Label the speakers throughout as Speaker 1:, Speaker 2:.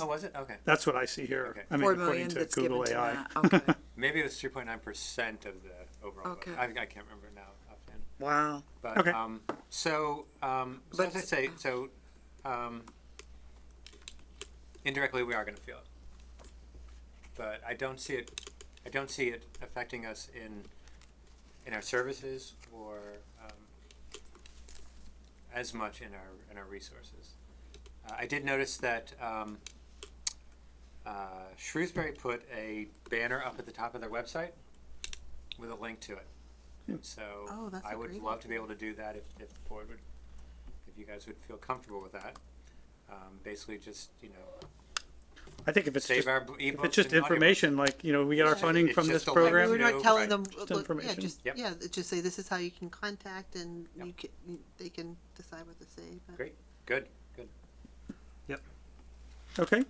Speaker 1: Oh, was it? Okay.
Speaker 2: That's what I see here.
Speaker 1: Okay.
Speaker 2: I mean,
Speaker 3: Four
Speaker 2: according
Speaker 3: million
Speaker 2: to
Speaker 3: that's given
Speaker 2: Google
Speaker 3: to
Speaker 2: AI.
Speaker 3: that, okay,
Speaker 1: Maybe it was three point nine percent of the overall. vote.
Speaker 3: Okay.
Speaker 1: I, I can't remember now offhand.
Speaker 3: wow,
Speaker 1: But
Speaker 2: Okay.
Speaker 1: um, so, um, so
Speaker 3: But-
Speaker 1: as I say, so um, indirectly we are going to feel it, but I don't see it. I don't see it affecting us in in our services or um, as much in our in our resources. Uh, I did notice that um, uh, Shrewsbury put a banner up at the top of their website with a link to it.
Speaker 2: Hmm.
Speaker 1: So
Speaker 3: Oh, that's
Speaker 1: I
Speaker 3: a
Speaker 1: would
Speaker 3: great
Speaker 1: love to be able to do that if, if the board would, if you guys would feel comfortable with that. Um, basically, just you know,
Speaker 2: I think if it's
Speaker 1: save
Speaker 2: just,
Speaker 1: our
Speaker 2: if
Speaker 1: b- ebooks.
Speaker 2: it's just
Speaker 1: and audiobooks.
Speaker 2: information, like, you know, we get our
Speaker 3: Yeah.
Speaker 2: funding
Speaker 1: It's
Speaker 2: from
Speaker 1: just
Speaker 2: this
Speaker 1: a link.
Speaker 3: we
Speaker 1: We
Speaker 2: program.
Speaker 3: were
Speaker 1: would-
Speaker 3: not
Speaker 1: No,
Speaker 3: telling
Speaker 1: right.
Speaker 3: them,
Speaker 2: Just
Speaker 3: look, yeah,
Speaker 2: information.
Speaker 3: just,
Speaker 1: Yep.
Speaker 3: yeah, just say this is how you can contact and
Speaker 1: Yep.
Speaker 3: you can, they can decide what to say, but.
Speaker 1: Great, good, good.
Speaker 2: Okay.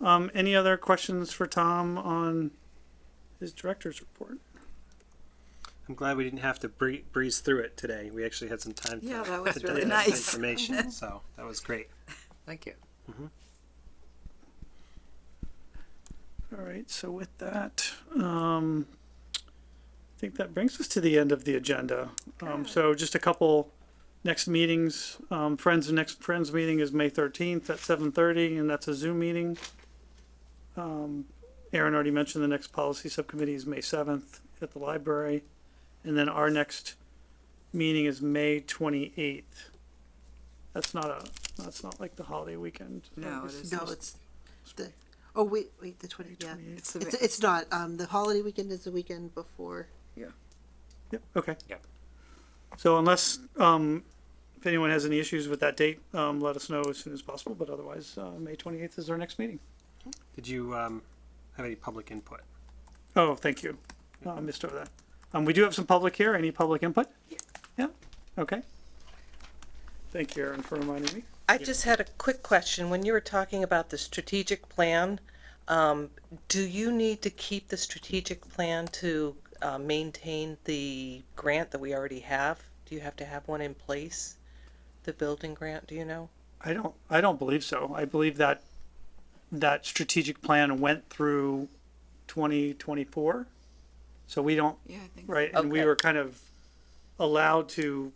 Speaker 2: Um, any other questions for Tom on his director's report?
Speaker 4: I'm glad we didn't have to bree- breeze through it today. We actually had some time.
Speaker 3: Yeah,
Speaker 4: to,
Speaker 3: that was
Speaker 4: to
Speaker 3: really
Speaker 4: digest
Speaker 3: nice.
Speaker 4: Information, so that was great.
Speaker 1: Thank you.
Speaker 2: All right, so with that, um, I think that brings us to the end of the agenda. Um, so just a couple next meetings, um, Friends, next Friends meeting is May thirteenth at seven thirty, and that's a Zoom meeting. Um, Aaron already mentioned the next policy subcommittee is May seventh at the library, and then our next meeting is May twenty-eighth. That's not a, that's not like the holiday weekend. Um,
Speaker 5: No, it
Speaker 2: It's-
Speaker 5: isn't.
Speaker 3: No, it's the, oh, wait, wait, the twenty, yeah,
Speaker 2: 28th.
Speaker 5: It's the
Speaker 3: it's,
Speaker 5: ma-
Speaker 3: it's not, um, the holiday weekend is the weekend before,
Speaker 2: Yep, okay.
Speaker 1: Yep.
Speaker 2: So unless, um, if anyone has any issues with that date, um, let us know as soon as possible, but otherwise, uh, May twenty-eighth is our next meeting.
Speaker 4: Did you um, have any public input?
Speaker 2: Oh, thank you. Uh, I missed over that. Um, we do have some public here. Any public input? Yeah, okay. Thank you, Aaron, for reminding me.
Speaker 6: I just had a quick question. When you were talking about the strategic plan, um, do you need to keep the strategic plan to uh, maintain the grant that we already have? Do you have to have one in place? The building grant, do you know?
Speaker 2: I don't, I don't believe so. I believe that, that strategic plan went through twenty twenty-four. So we don't,
Speaker 5: Yeah, I think.
Speaker 2: Right, and we
Speaker 6: Okay.
Speaker 2: were kind of allowed to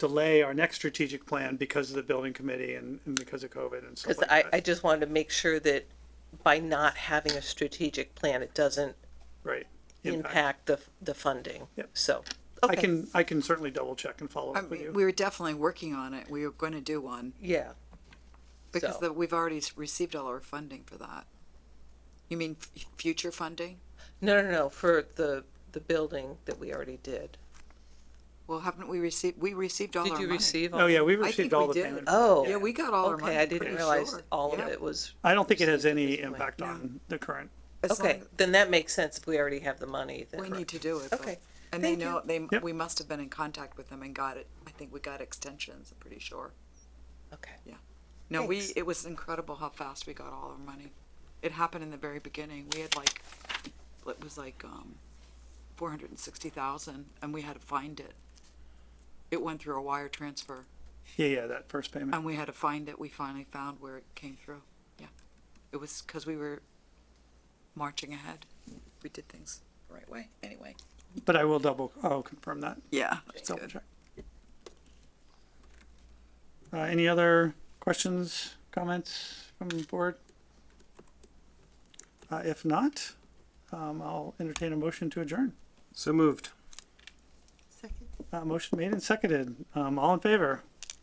Speaker 2: delay our next strategic plan because of the building committee and, and because of COVID and stuff
Speaker 6: Because
Speaker 2: like
Speaker 6: I,
Speaker 2: that.
Speaker 6: I just wanted to make sure that by not having a strategic plan, it doesn't
Speaker 2: Right.
Speaker 6: impact the, the funding.
Speaker 2: Yep.
Speaker 6: So,
Speaker 2: I
Speaker 6: okay,
Speaker 2: can, I can certainly double check and follow
Speaker 5: I
Speaker 2: up with
Speaker 5: mean,
Speaker 2: you.
Speaker 5: we were definitely working on it. We were going to do one
Speaker 6: yeah,
Speaker 5: because
Speaker 6: So-
Speaker 5: the, we've already s- received all our funding for that. You mean f- future funding?
Speaker 6: no, no, no, for the, the building that we already did.
Speaker 5: Well, haven't we received? We received all
Speaker 6: Did
Speaker 5: our
Speaker 6: you
Speaker 5: money.
Speaker 6: receive? all
Speaker 2: Oh, yeah, we
Speaker 5: I
Speaker 2: received
Speaker 5: think
Speaker 2: all the
Speaker 5: we did.
Speaker 2: payment.
Speaker 6: Oh.
Speaker 5: Yeah, we got all our money.
Speaker 6: Okay, I didn't
Speaker 5: pretty
Speaker 6: realize
Speaker 5: sure.
Speaker 6: all of
Speaker 5: Yeah.
Speaker 6: it was.
Speaker 2: I don't think it has
Speaker 6: received at
Speaker 2: any
Speaker 6: this point.
Speaker 2: impact on the current.
Speaker 5: As
Speaker 6: Okay,
Speaker 5: long-
Speaker 6: then that makes sense if we already have the money,
Speaker 5: we
Speaker 6: then.
Speaker 5: need to do it. but-
Speaker 6: Okay,
Speaker 5: And they
Speaker 6: Thank
Speaker 5: know they
Speaker 2: Yep.
Speaker 5: we must have been in contact with them and got it. I think we got extensions. I'm pretty sure.
Speaker 6: okay.
Speaker 5: No,
Speaker 6: Thanks.
Speaker 5: we it was incredible how fast we got all our money. It happened in the very beginning. We had like it was like um four hundred and sixty thousand and we had to find it. It went through a wire transfer
Speaker 2: Yeah, yeah, that first payment.
Speaker 5: and we had to find it. We finally found where it came through. Yeah. It was because we were marching ahead. We did things the right way. Anyway.
Speaker 2: But I will double, I'll confirm that.
Speaker 5: Yeah.
Speaker 2: Let's double check. Uh, any other questions, comments from the board? Uh, if not, um, I'll entertain a motion to adjourn.
Speaker 4: So moved.
Speaker 3: second.
Speaker 2: Uh, motion made and seconded. Um, all in favor?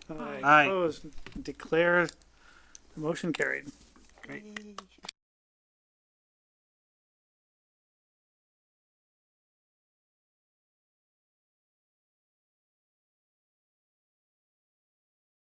Speaker 4: Aye.
Speaker 2: Opposed? Declare the motion carried.
Speaker 3: Yay.